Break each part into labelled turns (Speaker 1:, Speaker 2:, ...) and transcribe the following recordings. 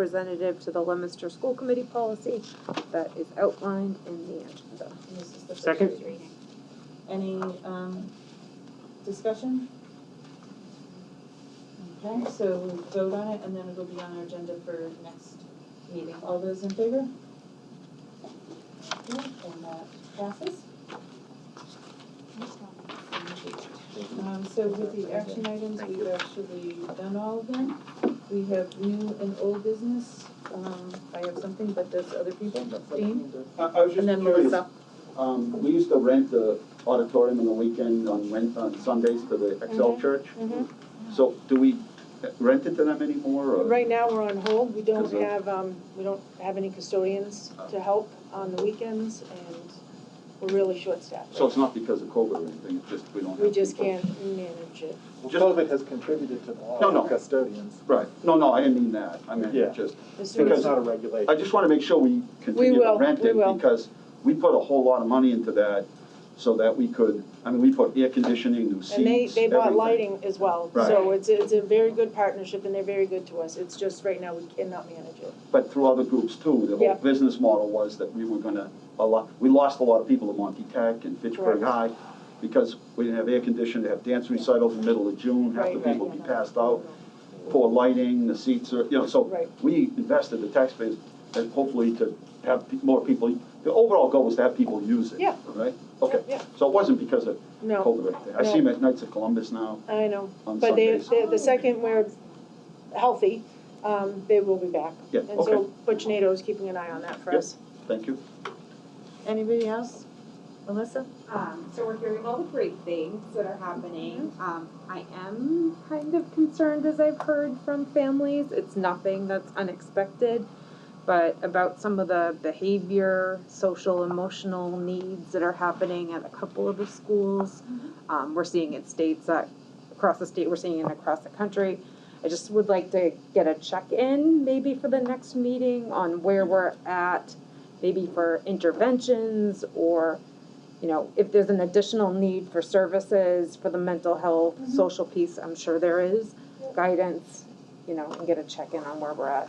Speaker 1: representative to the Leominster School Committee policy that is outlined in the agenda.
Speaker 2: And This is the first
Speaker 3: Second.
Speaker 2: reading. Any, um, discussion? Okay, so we'll vote on it and then it'll be on our agenda for next meeting. All those in favor? Okay, and that passes. Um, so with the action items, we've actually done all of them. We have new and old business. Um, I have something, but does other people, Dean?
Speaker 4: I, I was just
Speaker 2: And then
Speaker 4: curious,
Speaker 2: Melissa.
Speaker 4: um, we used to rent the auditorium on the weekend on Wed, on Sundays to the
Speaker 5: Mm-hmm.
Speaker 4: Excel Church. So do we rent it to them anymore, or?
Speaker 5: Right now, we're on hold, we don't
Speaker 4: Is it-
Speaker 5: have, um, we don't have any custodians to help on the weekends, and we're really short-staffed.
Speaker 4: So it's not because of COVID or anything, it's just we don't have.
Speaker 5: We just
Speaker 4: people.
Speaker 5: can't manage it.
Speaker 6: Well, COVID has contributed to the law
Speaker 4: No, no.
Speaker 6: of custodians.
Speaker 4: Right, no, no, I didn't mean that, I meant
Speaker 6: Yeah.
Speaker 4: just,
Speaker 5: This
Speaker 6: So it's
Speaker 5: was,
Speaker 6: not a
Speaker 4: I
Speaker 6: regulation.
Speaker 4: just wanna make sure we continue to
Speaker 5: will,
Speaker 4: rent
Speaker 5: we
Speaker 4: it,
Speaker 5: will.
Speaker 4: because we put a whole lot of money into that, so that we could, I mean, we put air conditioning, new seats,
Speaker 5: and they, they bought
Speaker 4: everything.
Speaker 5: lighting as well, so
Speaker 4: Right.
Speaker 5: it's, it's a very good partnership, and they're very good to us, it's just right now, we cannot manage it.
Speaker 4: But through other groups too, the
Speaker 5: Yeah.
Speaker 4: whole business model was that we were gonna, a lot, we lost a lot of people at Monty Tech and Fitchburg
Speaker 5: Correct.
Speaker 4: High because we didn't have air conditioning, to have dance recitals in the middle of June, half the
Speaker 5: Right, right.
Speaker 4: people be passed out, poor lighting, the seats are, you know, so
Speaker 5: Right.
Speaker 4: we invested the taxpayers and hopefully to have pe- more people, the overall goal was to have people use it,
Speaker 5: Yeah.
Speaker 4: right? Okay,
Speaker 5: Yeah,
Speaker 4: so it wasn't because of
Speaker 5: No.
Speaker 4: COVID right there. I
Speaker 5: No.
Speaker 4: see them at Knights of Columbus now
Speaker 5: yeah, I know,
Speaker 4: on
Speaker 5: but they,
Speaker 4: Sundays.
Speaker 5: they- the second we're healthy, um, they will be back.
Speaker 4: Yeah,
Speaker 5: And so Butch Nato is keeping an eye on that for
Speaker 4: Yep.
Speaker 5: us.
Speaker 4: Thank you.
Speaker 2: Anybody else? Melissa?
Speaker 7: Um, so we're hearing all the great things that are happening. Um, I am kind of concerned as I've heard from
Speaker 1: families. It's nothing that's unexpected, but about some of the behavior, social, emotional needs that are happening at a couple of the schools. Um, we're seeing in states that, across the state, we're seeing it across the country. I just would like to get a check-in maybe for the next meeting on where we're at, maybe for interventions or, you know, if there's an additional need for services for the mental health, social piece, I'm sure there is, guidance, you know, and get a check-in on where we're at.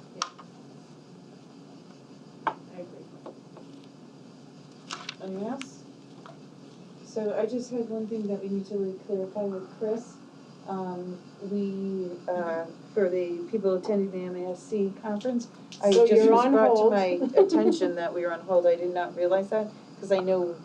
Speaker 2: I agree. Anyone else? So I just had one thing that we need to really clarify with Chris. Um, we, uh, for the people attending the MASC conference, I
Speaker 5: So
Speaker 2: just was
Speaker 5: you're on
Speaker 2: brought to
Speaker 5: hold.
Speaker 2: my attention that we were on hold, I did not realize that, cause I know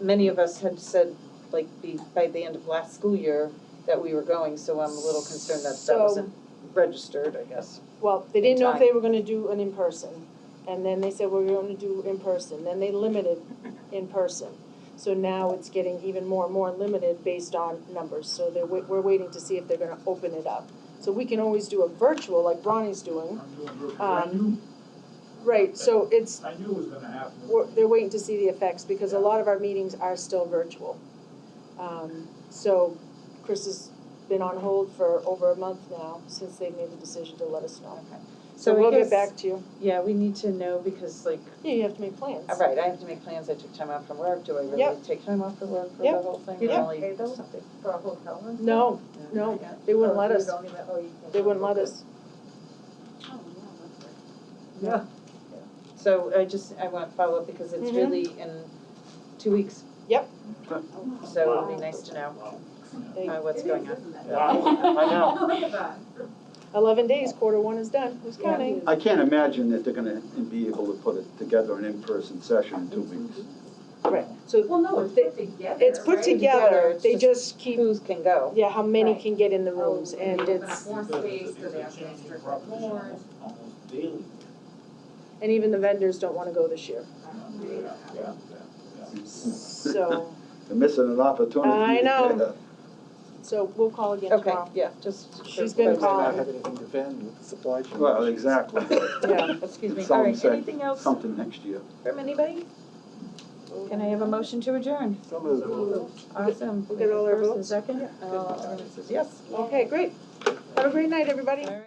Speaker 2: many of us had said, like, be, by the end of last school year, that we were going, so I'm a little concerned that that
Speaker 5: So-
Speaker 2: wasn't registered, I guess.
Speaker 5: Well, they didn't
Speaker 2: In
Speaker 5: know if they were gonna do an in-person, and then they said, well, we're gonna do in-person, then they limited in-person. So now it's getting even more and more limited based on numbers, so they're, wait- we're waiting to see if they're gonna open it up. So we can always do a virtual, like Ronnie's doing,
Speaker 8: I knew,
Speaker 5: Um, right, so it's,
Speaker 8: I knew it was gonna happen.
Speaker 5: we're, they're waiting to see the effects, because a lot of our meetings are still virtual. Um, so Chris has been on hold for over a month now, since they made the decision to let us know. So
Speaker 2: I
Speaker 5: we'll
Speaker 2: guess-
Speaker 5: get back to you.
Speaker 2: Yeah, we need to know, because like,
Speaker 5: Yeah, you have to make plans.
Speaker 2: All Uh, right, I have to make plans, I took time off from work, do I really
Speaker 5: Yep.
Speaker 2: take time off from work for the
Speaker 5: Yep.
Speaker 2: whole thing,
Speaker 5: You
Speaker 2: or
Speaker 5: don't
Speaker 2: only
Speaker 9: pay those?
Speaker 2: something?
Speaker 9: For a hotel and stuff?
Speaker 5: No, no, they wouldn't let
Speaker 9: Oh, you
Speaker 5: us,
Speaker 9: don't even- oh, you can't.
Speaker 5: they wouldn't let us.
Speaker 2: Yeah. So I just, I want to follow up because it's
Speaker 5: Mhm.
Speaker 2: really in two weeks.
Speaker 5: Yep.
Speaker 4: Okay.
Speaker 2: So it'd be nice to know
Speaker 5: They-
Speaker 2: uh, what's going on.
Speaker 4: I know.
Speaker 9: Look at that.
Speaker 5: Eleven days, quarter one is done, who's
Speaker 2: Yeah.
Speaker 5: counting?
Speaker 4: I can't imagine that they're gonna be able to put it together an in-person session in two weeks.
Speaker 5: Right, so
Speaker 9: Well, no, it's put together,
Speaker 5: it's put
Speaker 9: right?
Speaker 2: Together,
Speaker 5: together,
Speaker 2: it's
Speaker 5: they
Speaker 2: just
Speaker 5: just keep,
Speaker 2: Who's can go?
Speaker 5: yeah, how many
Speaker 9: Right.
Speaker 5: can get in the
Speaker 9: Oh,
Speaker 5: rooms, and
Speaker 9: open up
Speaker 5: it's,
Speaker 9: More
Speaker 8: Because
Speaker 9: space, do
Speaker 8: it's
Speaker 9: they
Speaker 8: a
Speaker 9: have to
Speaker 8: changing
Speaker 9: restrict
Speaker 8: proposition
Speaker 9: more?
Speaker 8: almost- Almost daily.
Speaker 5: and even the vendors don't wanna go this year,
Speaker 8: Yeah, yeah, yeah.
Speaker 5: so,
Speaker 4: They're missing an opportunity.
Speaker 5: I know. so we'll call again
Speaker 2: Okay,
Speaker 5: tomorrow.
Speaker 2: yeah, just.
Speaker 5: She's been
Speaker 6: They might not
Speaker 5: calling.
Speaker 6: have anything to vend with the supply chain.
Speaker 4: Well,
Speaker 6: issues.
Speaker 4: exactly.
Speaker 2: Yeah, excuse me,
Speaker 4: Someone
Speaker 2: all right,
Speaker 4: said
Speaker 2: anything else
Speaker 4: Something next year.
Speaker 2: from anybody? Can I have a motion to adjourn?
Speaker 6: Some of the.
Speaker 2: Awesome.
Speaker 5: We'll get all our
Speaker 2: First and
Speaker 5: votes?
Speaker 2: Second, uh, everyone says yes.
Speaker 5: Okay, great, have a great night, everybody.
Speaker 2: All right.